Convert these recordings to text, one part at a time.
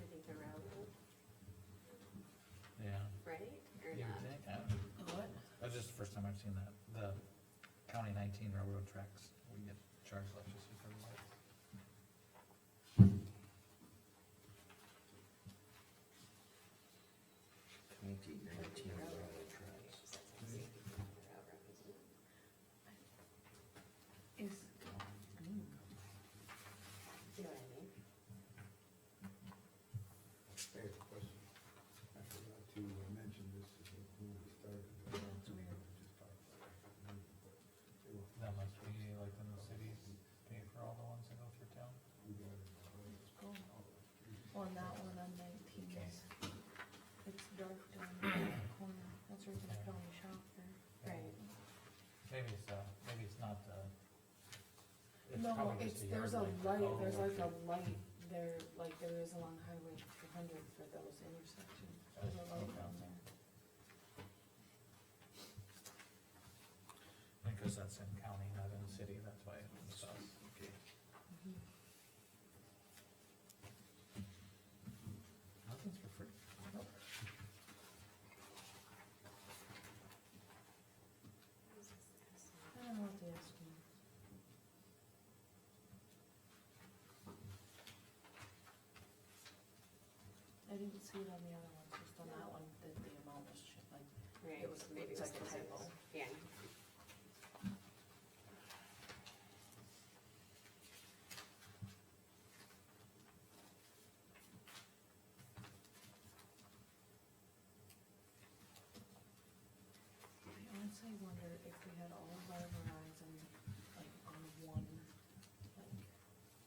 Oh, first time I've seen that, the county nineteen railroad tracks, we get charged electricity for the lights. Twenty nineteen railroad tracks. Is. See what I mean? I have a question. I forgot to uh, mention this when we started. I don't know if we just talked about it, but they were- That must be like in the cities, pay for all the ones that go through town. we got it in our way. On that one on nineteen, is- it's dark down in that corner, that's where the county shop there. Right. Maybe it's, uh, maybe it's not, uh. No, probably it's, just a there's a yard light. light, Oh, there's like a okay. light there, like there is along Highway two hundred for those intersections, there's a light down there. Because that's in county, not in the city, that's why it's us. Okay. Mm-hmm. Nothing's for free. I don't know what the estimate. is. I didn't see it on the other ones, just on that one, that the amount was shit, like, Right, It was- maybe it it's was like the a typo. typo. Yeah. I honestly wonder if we had all of our Verizon, like, on one, like,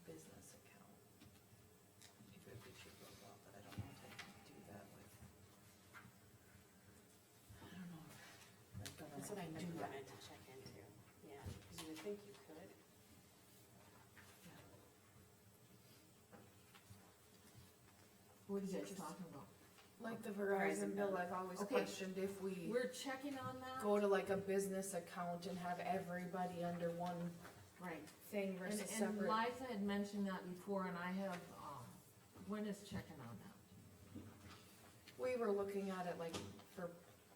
business account. If it would be cheaper as well, but I don't know if I can do that with. I don't know. if, like, That's what I government meant- do that. wanted to check into, yeah, because you would think you could. What is it Just- talking about? Like the Verizon bill, I've always Okay. questioned if we We're checking on that? go to like a business account and have everybody under one Right. thing And, versus and separate. Liza had mentioned that before and I have, um, when is checking on that? We were looking at it like for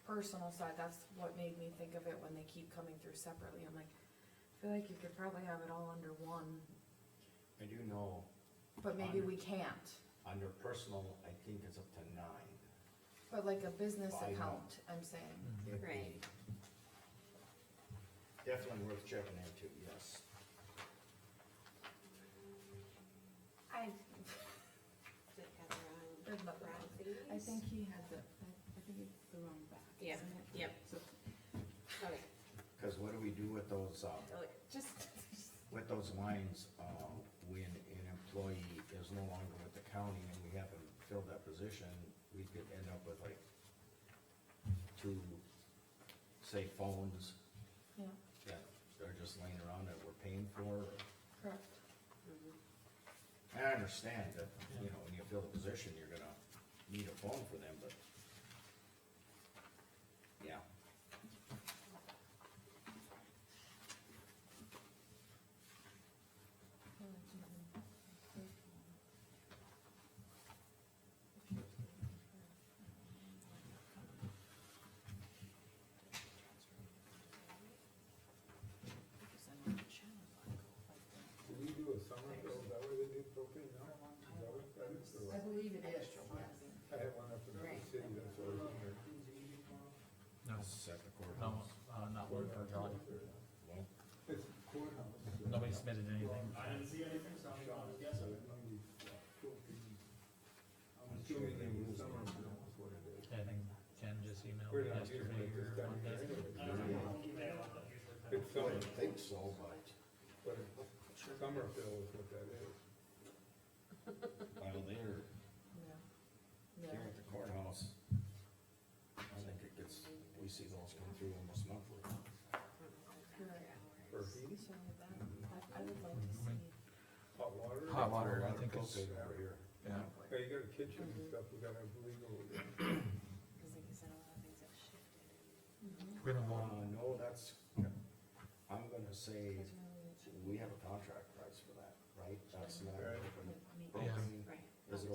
personal side, that's what made me think of it when they keep coming through separately, I'm like, I feel like you could probably have it all under one, I do know, but maybe we can't. under personal, I think it's up to nine. But like a business Why not? account, I'm saying, Mm. It'd be Right. Definitely worth checking into, yes. I, Did it have the wrong- There's nothing wrong wrong. things? I think he had the, I, I think it's the wrong back. Yeah, isn't it? yep. So, Okay, Cause what do we do with those, uh, oh, just, with those lines, uh, when an employee is no longer with the county and we haven't filled that position, we could end up with like two, say phones yeah, that are just laying around that we're paying for. correct. mhm, And I understand that, you know, when you fill a position, you're gonna need a phone for them, but. Yeah, Did we do a summer bill, is that where they do propane now? Is that what that is, or I what? believe it is, yes. I had one up in the Right. city, that's what I was wondering. No, it's at the no, courthouse. uh, not one per job. Well, It's courthouse. uh, Nobody submitted anything. I didn't see anything, so I'm shop, gonna guess. so it might be propane. I'm assuming they use summer bill is what it is. I think Ken just emailed We're me not using yesterday it this or time of year Monday. anyway. I don't know, email, but usually. It's I summer, would think so, but. but it's summer bill is what that is. While they're Yeah. here Yeah, at the courthouse, I think it gets, we see those come through almost monthly. I don't know if that's Right. your For hours. heat, so that, I, I would like to see, hot water. Hot water, I Water think it's, propane over here. yeah. Yeah, you got a kitchen and stuff, we gotta have legal. Because like you said, a lot of things have shifted. We don't Uh, want- no, that's, I'm gonna say, because really, we have a contract